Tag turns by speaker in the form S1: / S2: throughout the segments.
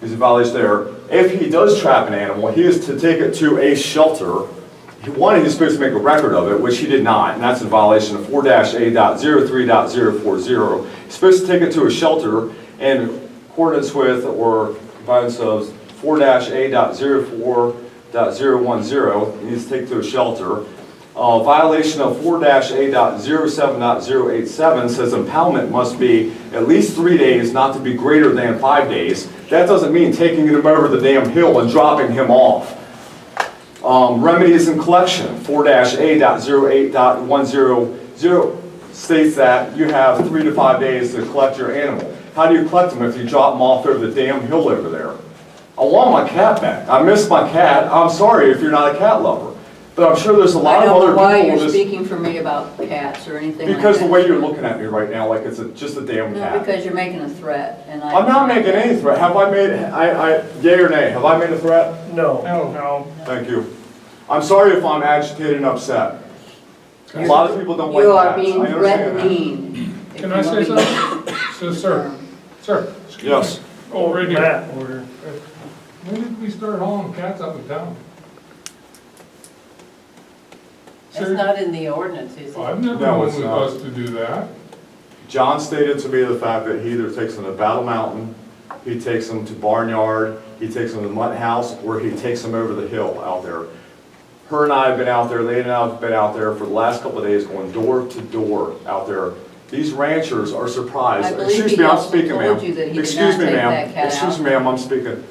S1: He's in violation there. If he does trap an animal, he is to take it to a shelter. He- One, he's supposed to make a record of it, which he did not, and that's in violation of four dash A dot zero three dot zero four zero. He's supposed to take it to a shelter in accordance with or compliance of four dash A dot zero four dot zero one zero. He needs to take it to a shelter. Uh, Violation of four A dot zero seven dot zero eight seven says impoundment must be at least three days, not to be greater than five days. That doesn't mean taking him over the damn hill and dropping him off. Um, Remedies and collection, four A dot zero eight dot one zero zero states that you have three to five days to collect your animal. How do you collect them if you drop them off over the damn hill over there? I want my cat back. I miss my cat. I'm sorry if you're not a cat lover. But I'm sure there's a lot
S2: I
S1: of
S2: don't
S1: other
S2: know
S1: people.
S2: why you're
S1: that's-
S2: speaking for me about cats or anything like that.
S1: Because the way you're looking at me right now, like it's a- just a damn
S2: No,
S1: cat.
S2: because you're making a threat, and I...
S1: I'm not making any threat. Have I made, I, I, yea or nay, have I made a threat?
S3: No.
S4: No.
S1: Thank you. I'm sorry if I'm agitated and upset. A lot of people don't like
S2: You are
S1: cats.
S2: being
S1: I understand that.
S2: threatening. if
S4: Can
S2: you
S4: I say
S2: want to be-
S4: something? So, sir, sir. excuse me.
S1: Yes.
S4: Oh, right here.
S3: Matt order.
S4: When did we start hauling cats up and down?
S5: It's not in the ordinance, is
S4: Oh,
S5: it?
S4: I've never
S1: No,
S4: known
S1: it's
S4: we
S1: not.
S4: was to do that.
S1: John stated to me the fact that he either takes them to Battle Mountain, he takes them to Barnyard, he takes them to Mutt House, or he takes them over the hill out there. Her and I have been out there, Lane and I have been out there for the last couple of days, going door to door out there. These ranchers are
S2: I
S1: surprised.
S2: believe
S1: Excuse
S2: he
S1: me, I'm
S2: also
S1: speaking,
S2: told
S1: ma'am.
S2: you that he did
S1: Excuse
S2: not
S1: me,
S2: take
S1: ma'am.
S2: that cat
S1: Excuse
S2: out.
S1: me, ma'am, I'm speaking.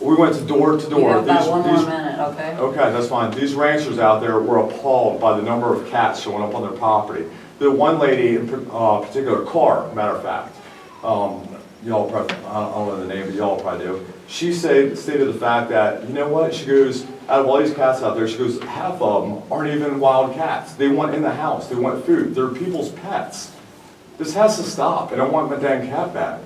S1: We went to door to
S2: You
S1: door.
S2: got about
S1: These-
S2: one more
S1: these- Oh,
S2: minute, okay?
S1: Okay, that's fine. These ranchers out there were appalled by the number of cats showing up on their property. The one lady in par- uh, particular, Carr, matter of fact, um, y'all probably, I don't I don't know the name, but y'all probably do. She said, stated the fact that, you know what, she goes, out of all these cats out there, she goes, half of them aren't even wild cats. They want in the house, they want food, they're people's pets. This has to stop, and I want my damn cat back.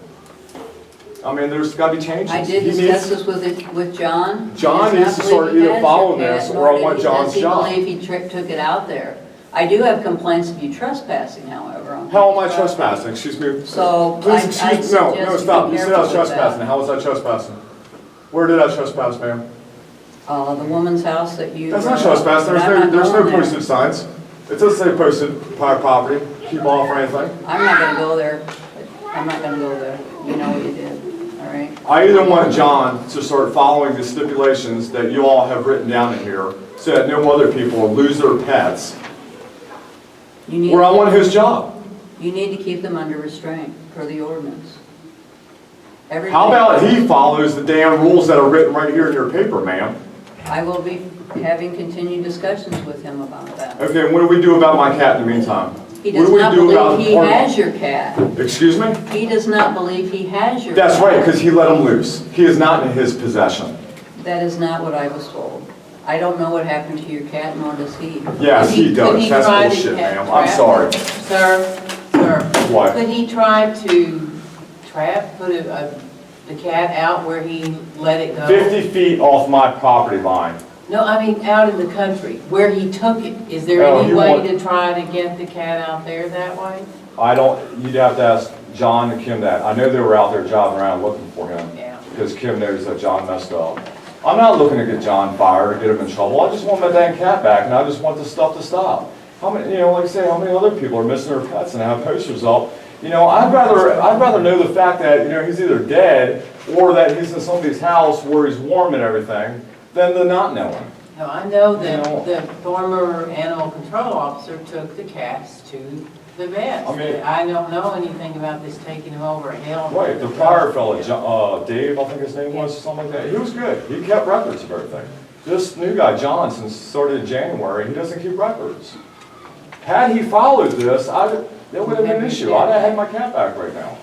S1: I mean, there's gotta be changes.
S2: I did
S1: He needs-
S2: discuss this with, it- with John. He
S1: John
S2: does
S1: needs
S2: not
S1: to start
S2: believe he
S1: either
S2: has
S1: following
S2: a cat,
S1: this,
S2: nor
S1: or I
S2: did
S1: want
S2: he-
S1: John's job.
S2: Does he believe he tri- took it out there? I do have complaints of you trespassing, however, on...
S1: How am I
S2: his property.
S1: trespassing? Excuse me.
S2: So,
S1: Please
S2: I-
S1: excuse-
S2: I
S1: No,
S2: suggest
S1: no,
S2: you
S1: stop.
S2: be
S1: You said I was
S2: careful with that.
S1: trespassing. How was I trespassing? Where did I trespass, ma'am?
S2: Uh, the woman's house that you...
S1: That's not trespassing. There's
S2: I'm
S1: no,
S2: not
S1: there's no
S2: going there.
S1: posted signs. It doesn't say posted prior property, keep off or anything.
S2: I'm not gonna go there. I'm not gonna go there. You know what you did, all right?
S1: I either want John to start following the stipulations that you all have written down in here so that no other people lose their pets,
S2: You
S1: or I
S2: need,
S1: want his job.
S2: you need to keep them under restraint per the ordinance. Everything-
S1: How about he follows the damn rules that are written right here in your paper, ma'am?
S2: I will be having continued discussions with him about that.
S1: Okay, and what do we do about my cat in the meantime?
S2: He
S1: What
S2: does
S1: do we
S2: not
S1: do about
S2: believe he
S1: Park-
S2: has your cat.
S1: Excuse me?
S2: He does not believe he has your cat.
S1: That's right, because he let him loose. He is not in his possession.
S2: That is not what I was told. I don't know what happened to your cat, nor does he.
S1: Yes, he
S5: Could
S1: does. That's
S5: try to
S1: bullshit,
S5: ca-
S1: ma'am. I'm
S5: trap-
S1: sorry.
S5: Sir, sir.
S1: What?
S5: Could he try to trap, put a, a- the cat out where he let it go?
S1: 50 feet off my property line.
S5: No, I mean, out in the country, where he took it. Is there
S1: Oh,
S5: any
S1: you
S5: way
S1: want-
S5: to try to get the cat out there that way?
S1: I don't, you'd have to ask John and Kim that. I know they were out there jogging around looking for him,
S5: Yeah.
S1: because Kim knows that John messed up. I'm not looking to get John fired or get him in trouble. I just want my dang cat back, and I just want this stuff to stop. How many, you know, like I say, how many other people are missing their pets and have posters up? You know, I'd rather, I'd rather know the fact that, you know, he's either dead, or that he's in somebody's house where he's warm and everything, than the not knowing.
S5: No, I know that
S1: No.
S5: the former animal control officer took the cats to the vet.
S1: I mean-
S5: I don't know anything about this taking them over a hill.
S1: Right, the prior fellow, Jo- uh, Dave, I think his name was, something like that, he was good, he kept records of everything. This new guy, John, since started in January, he doesn't keep records. Had he followed this, I, that would have been an issue, I'd have had my cat back right now.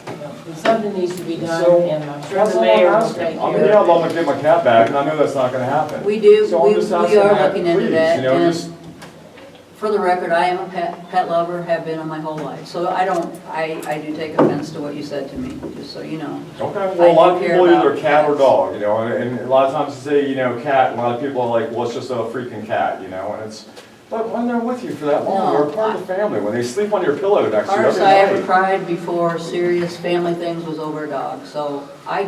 S5: Something needs to be done,
S1: So,
S5: and I'm sure
S1: that's
S5: the
S1: all I'm
S5: mayor will
S1: asking.
S5: take
S1: I mean,
S5: care
S1: yeah, I'd
S5: of it.
S1: love to get my cat back, and I know that's not gonna happen.
S2: We do-
S1: So I'm
S2: we-
S1: just
S2: we
S1: asking
S2: are
S1: that,
S2: looking into
S1: please,
S2: that,
S1: you know,
S2: and-
S1: just-
S2: For the record, I am a pet, pet lover, have been my whole life, so I don't, I, I do take offense to what you said to me, just so you know.
S1: Okay, well, a lot of
S2: I do care
S1: people either
S2: about
S1: cat or
S2: cats.
S1: dog, you know, and, and a lot of times you say, you know, cat, and a lot of people are like, well, it's just a freaking cat, you know, and it's, but when they're with you for that long,
S2: No,
S1: they're part of the family, when they sleep on your pillow next to you
S2: Hardest
S1: every
S2: I ever
S1: night.
S2: cried before serious family things was over a dog, so I